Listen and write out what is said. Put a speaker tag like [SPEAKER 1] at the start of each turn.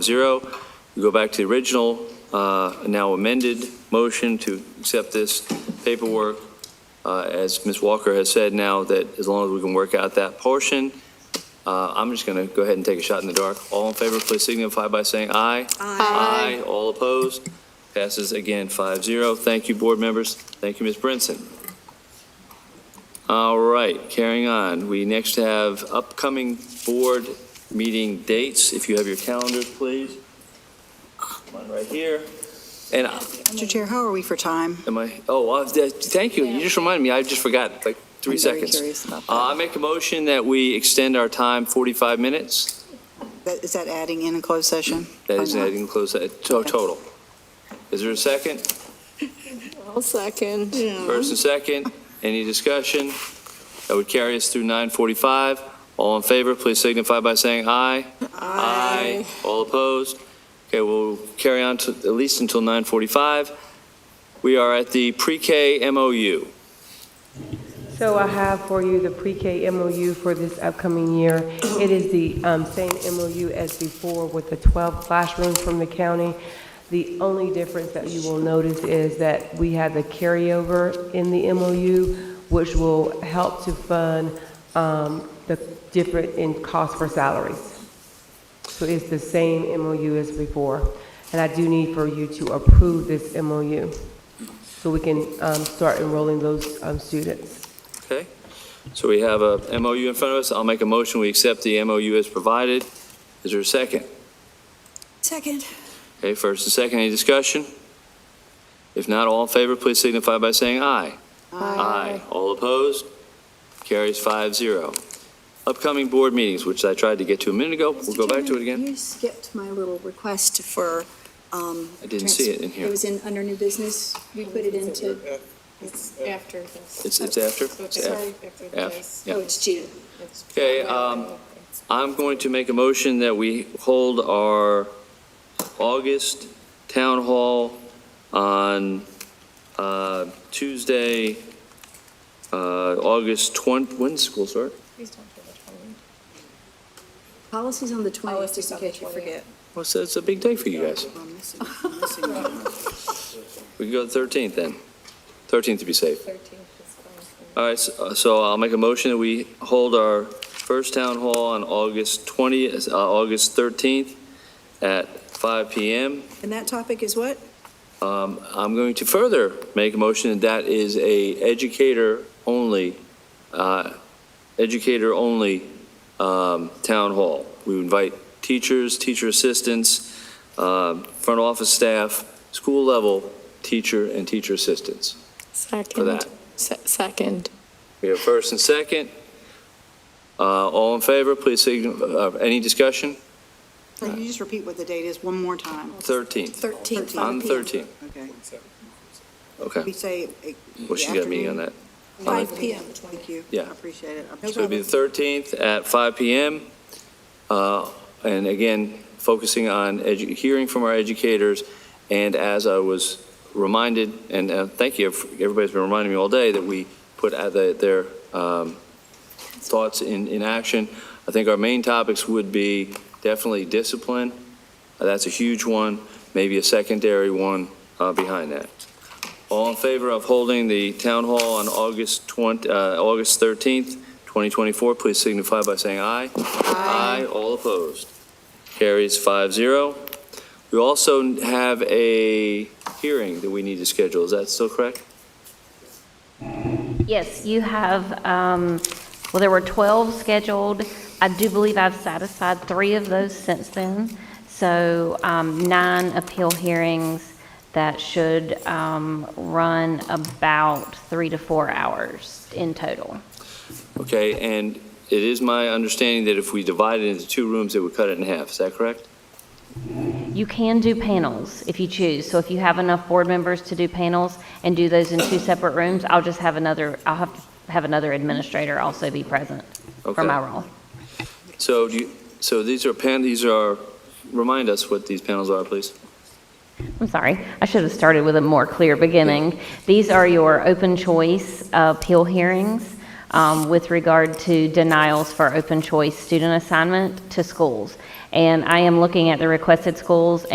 [SPEAKER 1] zero. We go back to the original, uh, now amended motion to accept this paperwork. Uh, As Ms. Walker has said now, that as long as we can work out that portion, uh, I'm just going to go ahead and take a shot in the dark. All in favor, please signify by saying aye.
[SPEAKER 2] Aye.
[SPEAKER 1] All opposed? Passes again, five zero. Thank you, board members. Thank you, Ms. Brinson. All right, carrying on. We next have upcoming board meeting dates. If you have your calendars, please. One right here. And I-
[SPEAKER 2] Mr. Chair, how are we for time?
[SPEAKER 1] am I, oh, uh, th- thank you. You just reminded me. I just forgot, like, three
[SPEAKER 2] I'm very
[SPEAKER 1] seconds.
[SPEAKER 2] curious about
[SPEAKER 1] Uh,
[SPEAKER 2] that.
[SPEAKER 1] I make a motion that we extend our time 45 minutes.
[SPEAKER 2] That- Is that adding in a closed session?
[SPEAKER 1] That is
[SPEAKER 2] Or not?
[SPEAKER 1] adding close, to- to- total. Is there a second?
[SPEAKER 3] I'll second.
[SPEAKER 2] Mm-hmm.
[SPEAKER 1] First and second, any discussion? That would carry us through 9:45. All in favor, please signify by saying aye. All opposed? Okay, we'll carry on to, at least until 9:45. We are at the pre-K MOU.
[SPEAKER 4] So I have for you the pre-K MOU for this upcoming year. It is the um, same MOU as before with the 12 classrooms from the county. The only difference that you will notice is that we have the carryover in the MOU, which will help to fund um, the different in cost for salaries. So it's the same MOU as before. And I do need for you to approve this MOU so we can um, start enrolling those um, students.
[SPEAKER 1] Okay? So we have a MOU in front of us. I'll make a motion, we accept the MOU as provided. Is there a second?
[SPEAKER 2] Second.
[SPEAKER 1] Okay, first and second, any discussion? If not, all in favor, please signify by saying aye. Aye. All opposed? Carries five zero. Upcoming board meetings, which I tried to get to a minute ago, we'll go back to it again.
[SPEAKER 5] You skipped my little request for, um.
[SPEAKER 1] I didn't see it in here.
[SPEAKER 5] It was in, under new business, we put it into,
[SPEAKER 3] It's after this.
[SPEAKER 1] It's, it's after?
[SPEAKER 3] So
[SPEAKER 1] It's
[SPEAKER 3] it's
[SPEAKER 1] after.
[SPEAKER 3] right after
[SPEAKER 1] F,
[SPEAKER 3] this.
[SPEAKER 1] yeah.
[SPEAKER 5] oh, it's G.
[SPEAKER 3] It's-
[SPEAKER 1] Okay, um, I'm going to make a motion that we hold our August town hall on uh, Tuesday, uh, August 20, when does school start?
[SPEAKER 3] Please don't do the twenty.
[SPEAKER 5] Policies on the twentieth,
[SPEAKER 3] Policies
[SPEAKER 5] just in
[SPEAKER 3] on the
[SPEAKER 5] case you forget.
[SPEAKER 1] Well, so it's a big day for you guys.
[SPEAKER 2] Oh, I'm missing- I'm missing one.
[SPEAKER 1] We can go to 13th then, 13th to be safe.
[SPEAKER 3] 13th is fine.
[SPEAKER 1] All right, so uh, so I'll make a motion that we hold our first town hall on August 20, uh, August 13th at 5 PM.
[SPEAKER 2] And that topic is what?
[SPEAKER 1] Um, I'm going to further make a motion that that is a educator-only, uh, educator-only um, town hall. We invite teachers, teacher assistants, um, front office staff, school-level teacher and teacher assistants for that.
[SPEAKER 3] Second. Se- Second.
[SPEAKER 1] We have first and second. Uh, All in favor, please, sign- uh, any discussion?
[SPEAKER 2] Can you just repeat what the date is one more time?
[SPEAKER 1] 13th,
[SPEAKER 5] Thirteenth.
[SPEAKER 1] on the 13th.
[SPEAKER 2] Okay. We
[SPEAKER 1] Okay,
[SPEAKER 2] say. eh,
[SPEAKER 1] well, she's got a meeting on that.
[SPEAKER 5] Five
[SPEAKER 2] afternoon?
[SPEAKER 5] PM.
[SPEAKER 2] Thank you.
[SPEAKER 1] Yeah.
[SPEAKER 2] I appreciate it. I'm
[SPEAKER 1] So it'll be the 13th at 5 PM. Uh, And again, focusing on edu- hearing from our educators. And as I was reminded, and uh, thank you, everybody's been reminding me all day that we put out the- their um, thoughts in, in action. I think our main topics would be definitely discipline. Uh, That's a huge one, maybe a secondary one uh, behind that. All in favor of holding the town hall on August 20, uh, August 13th, 2024, please signify by saying aye. Aye. all opposed. Carries 5-0. We also have a hearing that we need to schedule, is that still correct?
[SPEAKER 6] Yes, you have, um, well, there were 12 scheduled. I do believe I've satisfied three of those since then. So um, nine appeal hearings that should um, run about three to four hours in total.
[SPEAKER 1] Okay, and it is my understanding that if we divide it into two rooms, it would cut it in half, is that correct?
[SPEAKER 6] You can do panels if you choose. So if you have enough board members to do panels and do those in two separate rooms, I'll just have another, I'll have to have another administrator also be present
[SPEAKER 1] Okay.
[SPEAKER 6] for my role.
[SPEAKER 1] So do you, so these are pan, these are, remind us what these panels are, please.
[SPEAKER 6] I'm sorry, I should have started with a more clear beginning. These are your open choice uh, appeal hearings. um, with regard to denials for open choice student assignment to schools. And I am looking at the requested schools